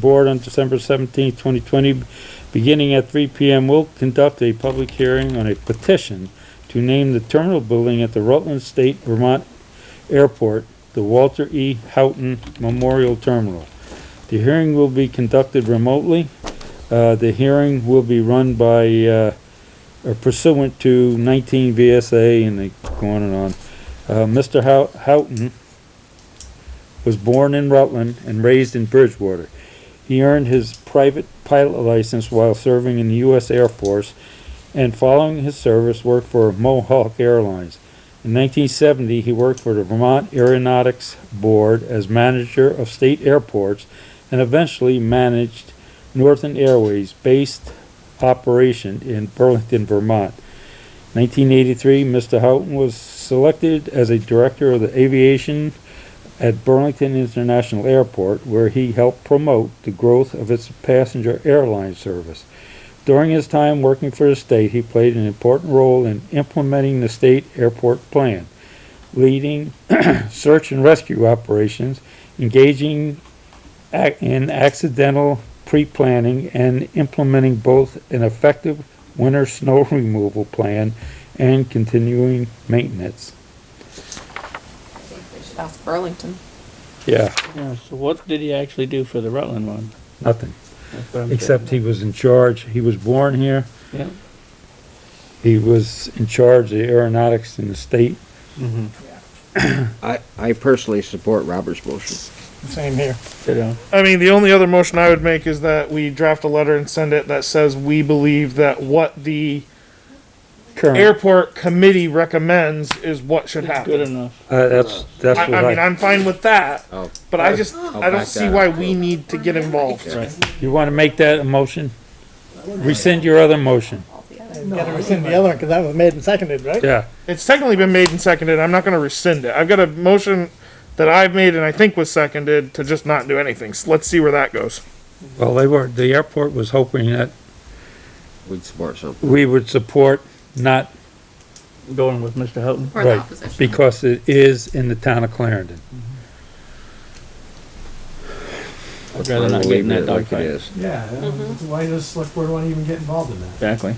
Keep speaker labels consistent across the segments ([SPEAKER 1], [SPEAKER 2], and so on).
[SPEAKER 1] Board on December seventeenth, twenty twenty, beginning at three P M, will conduct a public hearing on a petition to name the terminal building at the Rutland State Vermont Airport, the Walter E. Houghton Memorial Terminal. The hearing will be conducted remotely. Uh, the hearing will be run by, uh, or pursuant to nineteen VSA and they go on and on. Uh, Mr. Hou- Houghton was born in Rutland and raised in Bridgewater. He earned his private pilot license while serving in the U.S. Air Force and following his service worked for Mohawk Airlines. In 1970, he worked for the Vermont Aeronautics Board as manager of state airports and eventually managed Northern Airways based operation in Burlington, Vermont. 1983, Mr. Houghton was selected as a director of the aviation at Burlington International Airport, where he helped promote the growth of its passenger airline service. During his time working for the state, he played an important role in implementing the state airport plan, leading search and rescue operations, engaging ac- in accidental pre-planning, and implementing both an effective winter snow removal plan and continuing maintenance.
[SPEAKER 2] I think we should ask Burlington.
[SPEAKER 1] Yeah,
[SPEAKER 3] Yeah, so what did he actually do for the Rutland one?
[SPEAKER 1] nothing.
[SPEAKER 3] That's what I'm
[SPEAKER 1] Except he was in charge. He was born here.
[SPEAKER 3] saying.
[SPEAKER 1] He was in charge of the aeronautics in the state.
[SPEAKER 4] I, I personally support Robert's motion.
[SPEAKER 5] Same here.
[SPEAKER 3] Yeah, you know,
[SPEAKER 5] I mean, the only other motion I would make is that we draft a letter and send it that says we believe that what the
[SPEAKER 1] Current.
[SPEAKER 5] airport committee recommends is what should
[SPEAKER 3] it's good
[SPEAKER 5] happen.
[SPEAKER 3] enough.
[SPEAKER 1] Uh, that's, that's
[SPEAKER 5] I,
[SPEAKER 1] what
[SPEAKER 5] I mean,
[SPEAKER 1] I,
[SPEAKER 5] I'm fine with that,
[SPEAKER 4] Oh,
[SPEAKER 5] but I just, I
[SPEAKER 4] back
[SPEAKER 5] don't see
[SPEAKER 4] that
[SPEAKER 5] why
[SPEAKER 4] up.
[SPEAKER 5] we need to get involved.
[SPEAKER 1] you wanna make that a motion? Rescind your other motion.
[SPEAKER 6] Gotta rescind the other one, cause that was made and seconded, right?
[SPEAKER 1] Yeah,
[SPEAKER 5] It's technically been made and seconded. I'm not gonna rescind it. I've got a motion that I've made and I think was seconded to just not do anything. So let's see where that goes.
[SPEAKER 1] well, they were, the airport was hoping that
[SPEAKER 4] we'd support something.
[SPEAKER 1] we would support not,
[SPEAKER 3] Going with Mr. Houghton.
[SPEAKER 2] Or the
[SPEAKER 1] right,
[SPEAKER 2] opposition.
[SPEAKER 1] because it is in the town of Clarendon.
[SPEAKER 3] I'd rather not get in that dogfight.
[SPEAKER 6] Yeah, uh, why does select board wanna even get involved in that?
[SPEAKER 3] Exactly.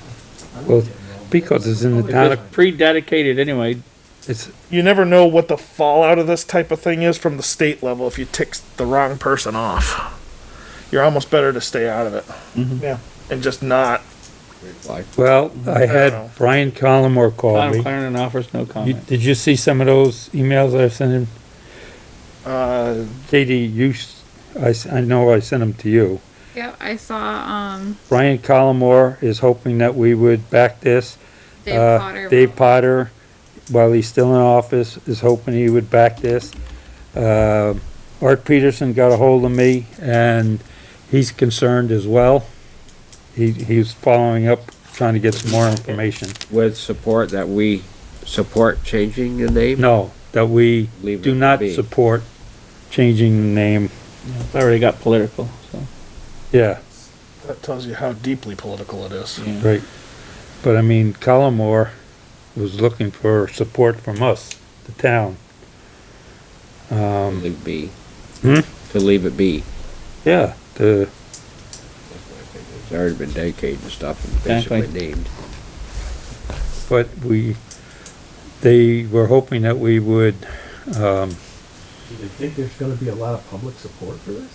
[SPEAKER 1] Well, because it's in the town of,
[SPEAKER 3] It's pre-dedicated anyway.
[SPEAKER 1] it's,
[SPEAKER 5] You never know what the fallout of this type of thing is from the state level if you tick the wrong person off. You're almost better to stay out of it.
[SPEAKER 6] Yeah.
[SPEAKER 5] and just not.
[SPEAKER 1] well, I
[SPEAKER 5] know.
[SPEAKER 1] had Brian Collmore call
[SPEAKER 3] Town of
[SPEAKER 1] me.
[SPEAKER 3] Clarendon offers no
[SPEAKER 1] You-
[SPEAKER 3] comment.
[SPEAKER 1] Did you see some of those emails I sent him?
[SPEAKER 5] Uh,
[SPEAKER 1] Katie, you, s- I, s- I know I sent them to you.
[SPEAKER 2] Yeah, I saw, um,
[SPEAKER 1] Brian Collmore is hoping that we would back this.
[SPEAKER 2] Dave
[SPEAKER 1] Uh,
[SPEAKER 2] Potter.
[SPEAKER 1] Dave Potter, while he's still in office, is hoping he would back this. Uh, Art Peterson got a hold of me and he's concerned as well. He, he's following up, trying to get some more information.
[SPEAKER 4] With support that we support changing the name?
[SPEAKER 1] No, that we
[SPEAKER 4] Leave it
[SPEAKER 1] do not
[SPEAKER 4] be.
[SPEAKER 1] support changing the name.
[SPEAKER 3] It's already got political, so.
[SPEAKER 1] Yeah,
[SPEAKER 5] that tells you how deeply political it is.
[SPEAKER 3] yeah.
[SPEAKER 1] right. But I mean, Collmore was looking for support from us, the town. Um,
[SPEAKER 4] Leave be.
[SPEAKER 1] Hmm?
[SPEAKER 4] To leave it be.
[SPEAKER 1] yeah, the,
[SPEAKER 4] It's already been dedicated and stuff and
[SPEAKER 3] Exactly.
[SPEAKER 4] basically named.
[SPEAKER 1] but we, they were hoping that we would, um,
[SPEAKER 6] Do you think there's gonna be a lot of public support for this?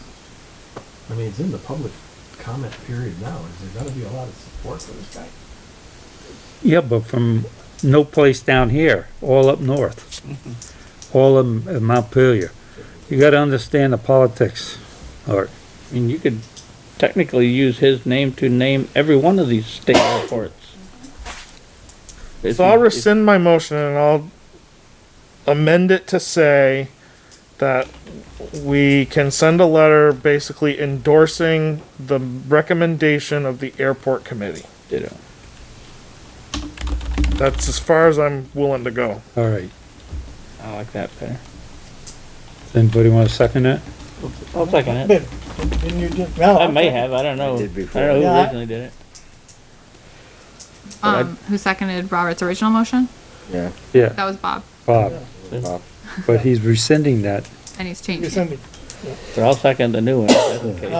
[SPEAKER 6] I mean, it's in the public comment period now, is there gonna be a lot of support for this guy?
[SPEAKER 1] yeah, but from no place down here, all up north. All in, in Montpelier. You gotta understand the politics, Art.
[SPEAKER 3] I mean, you could technically use his name to name every one of these state airports. If
[SPEAKER 5] So I'll
[SPEAKER 3] you- if-
[SPEAKER 5] rescind my motion and I'll amend it to say that we can send a letter basically endorsing the recommendation of the airport committee.
[SPEAKER 3] Ditto.
[SPEAKER 5] That's as far as I'm willing to go.
[SPEAKER 1] All right,
[SPEAKER 3] I like that better.
[SPEAKER 1] Does anybody wanna second that?
[SPEAKER 3] I'll second it.
[SPEAKER 6] Did- Didn't you just, no.
[SPEAKER 3] I may have, I don't know. I
[SPEAKER 4] did
[SPEAKER 3] don't
[SPEAKER 4] before.
[SPEAKER 3] know
[SPEAKER 6] Yeah,
[SPEAKER 3] who
[SPEAKER 6] I-
[SPEAKER 3] originally did it. but I-
[SPEAKER 2] Um, who seconded Robert's original motion?
[SPEAKER 4] Yeah.
[SPEAKER 1] Yeah,
[SPEAKER 2] That was Bob,
[SPEAKER 1] Bob,
[SPEAKER 4] Bob.
[SPEAKER 1] but he's rescinding that.
[SPEAKER 2] and he's changing it.
[SPEAKER 6] Rescinded.
[SPEAKER 3] But I'll second the new one, if that's the case.